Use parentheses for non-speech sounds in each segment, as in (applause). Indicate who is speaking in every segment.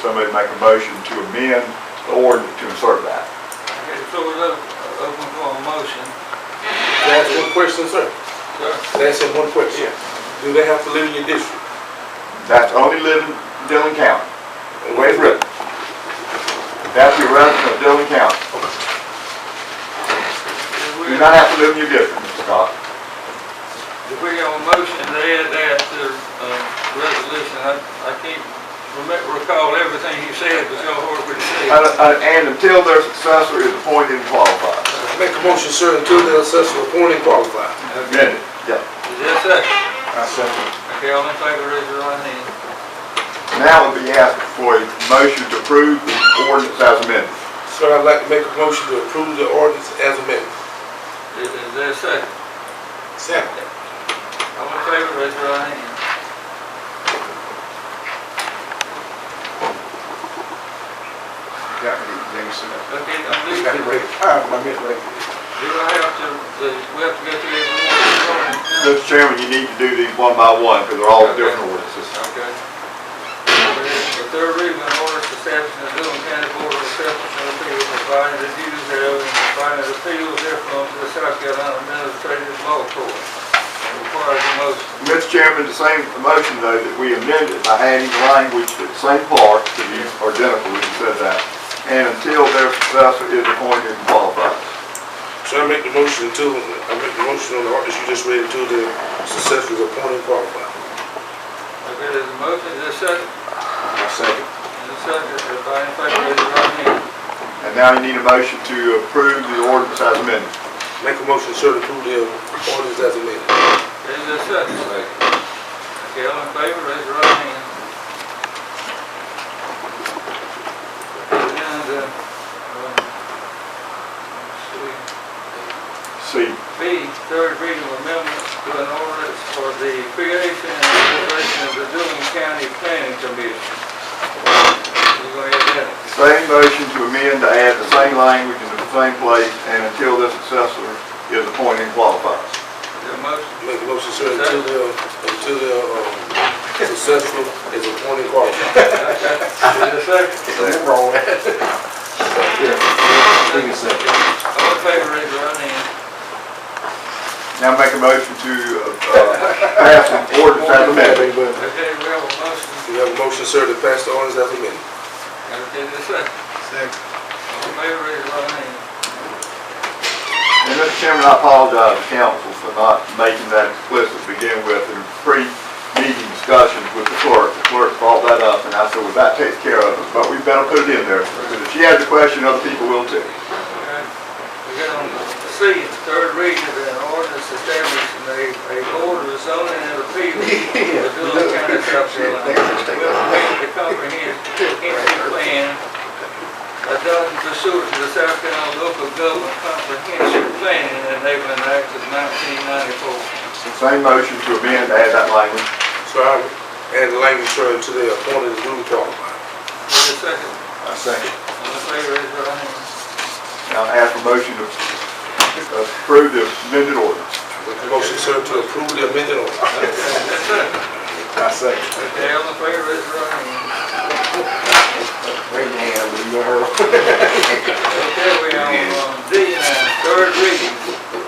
Speaker 1: somebody make a motion to amend the ordinance to insert that.
Speaker 2: Okay, the floor is open, open for a motion,
Speaker 3: That's one question, sir.
Speaker 2: sir.
Speaker 3: That's in one question. Do they have to live in your district?
Speaker 1: That's only living in Dillon County, the way it's written. That's your resident of Dillon County.
Speaker 2: If
Speaker 1: You do
Speaker 2: we
Speaker 1: not have to live in your district, Mr. Cox.
Speaker 2: if we have a motion to add that to the um, resolution, I, I can't remember, recall everything you said, but y'all heard what you
Speaker 1: And
Speaker 2: said.
Speaker 1: and until their successor is appointed and qualified.
Speaker 3: Make a motion, sir, until the assessor appointed qualified.
Speaker 1: Amended. Yeah.
Speaker 2: Is that second?
Speaker 1: I second.
Speaker 2: Okay, all in favor, raise your right hand.
Speaker 1: Now would be asked for a motion to approve the ordinance as amended.
Speaker 3: Sir, I'd like to make a motion to approve the ordinance as amended.
Speaker 2: Is, is there a second?
Speaker 3: Second.
Speaker 2: All in favor, raise your right hand.
Speaker 4: Got me, let me sit down.
Speaker 2: Okay, I'm
Speaker 4: You
Speaker 2: leaving.
Speaker 4: got me ready. All right, my mitt ready.
Speaker 2: Do I have to, the- we have to go through every one?
Speaker 1: Mr. Chairman, you need to do these one by one because they're all different ordinances.
Speaker 2: Okay. The third reading of ordinance establishing the Dillon County Board of Assessment and Appeals, providing the duties thereof, and providing the appeals therefrom to the South Carolina Administrative Law Court. It Requires a motion.
Speaker 1: Mr. Chairman, the same motion though that we amended by adding language to the same part to these are identical, we said that. And until their successor is appointed and qualified.
Speaker 3: Sir, I make the motion until, I make the motion on the ordinance you just read until the assessor is appointed qualified.
Speaker 2: Okay, there's a motion, there's a second,
Speaker 4: My second.
Speaker 2: there's a second, everybody in favor, raise your right hand.
Speaker 1: And now you need a motion to approve the ordinance as amended.
Speaker 3: Make a motion, sir, to approve the ordinance as amended.
Speaker 2: There's a second. Okay, all in favor, raise your right hand. And, uh, um, let's
Speaker 1: See,
Speaker 2: see. B, third reading of amendments to an ordinance for the creation and operation of the Dillon County Planning Commission. We're going to add that.
Speaker 1: same motion to amend to add the same language into the same place and until their successor is appointed and qualified.
Speaker 2: The motion,
Speaker 3: Make a motion, sir, until the, until the, um, successful is appointed qualified.
Speaker 2: okay. (laughs) Is there a second?
Speaker 4: Second.
Speaker 2: (laughs)
Speaker 4: Roll. Yeah. Give me a second.
Speaker 2: All in favor, raise your right hand.
Speaker 1: Now make a motion to uh, uh, pass an ordinance as amended.
Speaker 2: Okay, we have a motion.
Speaker 3: We have a motion, sir, to pass the ordinance as amended.
Speaker 2: Okay, the second.
Speaker 4: Second.
Speaker 2: All in favor, raise your right hand.
Speaker 1: And Mr. Chairman, I apologize to council for not making that explicit to begin with in pre-meeting discussions with the clerk. The clerk brought that up, and I said, well, that takes care of it, but we better put it in there. Because if she has a question, other people will too.
Speaker 2: Okay. We got on the C, the third reading of an ordinance establishing a, a board of zoning and appeals for Dillon County, South Carolina. Will amend the comprehensive plan adopted pursuant to the South Carolina Local Government Comprehensive Plan and Enabling Act of nineteen ninety-four.
Speaker 1: Same motion to amend, add that language.
Speaker 3: So I add the language, sir, to the appointed and duly qualified.
Speaker 2: Wait a second.
Speaker 1: I second.
Speaker 2: All in favor, raise your right hand.
Speaker 1: Now ask for motion to approve the amended ordinance.
Speaker 3: Make a motion, sir, to approve the amended ordinance.
Speaker 2: Okay, that's it.
Speaker 4: My second.
Speaker 2: Okay, all in favor, raise your right hand.
Speaker 4: Right now, we know her.
Speaker 2: Okay, we have um, D nine, third reading,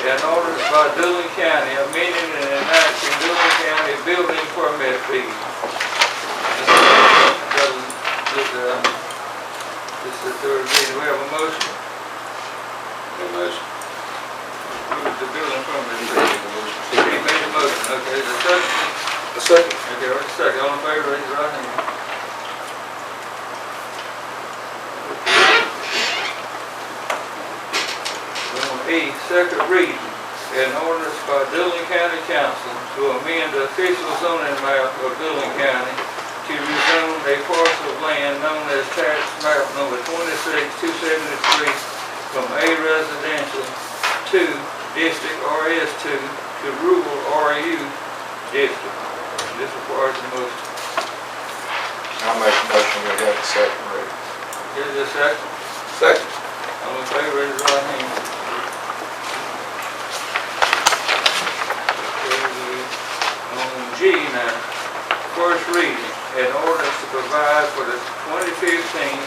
Speaker 2: an ordinance by Dillon County amending and enacting Dillon County building permit fee. This is, um, this is the third reading, we have a motion. A motion. Move the building permit fee. He made a motion, okay, is there a second?
Speaker 3: A second.
Speaker 2: Okay, wait a second, all in favor, raise your right hand. Number E, second reading, an ordinance by Dillon County Council to amend the official zoning map of Dillon County to rezone a parcel of land known as tax map number twenty-six, two seventy-three from A residential to district RS two to rural RU district. This requires the motion.
Speaker 4: I'll make a motion, we have the second reading.
Speaker 2: Is there a second?
Speaker 3: Second.
Speaker 2: All in favor, raise your right hand. um, Okay, On G now, first reading, an ordinance to provide for the 2015-2016 fifteen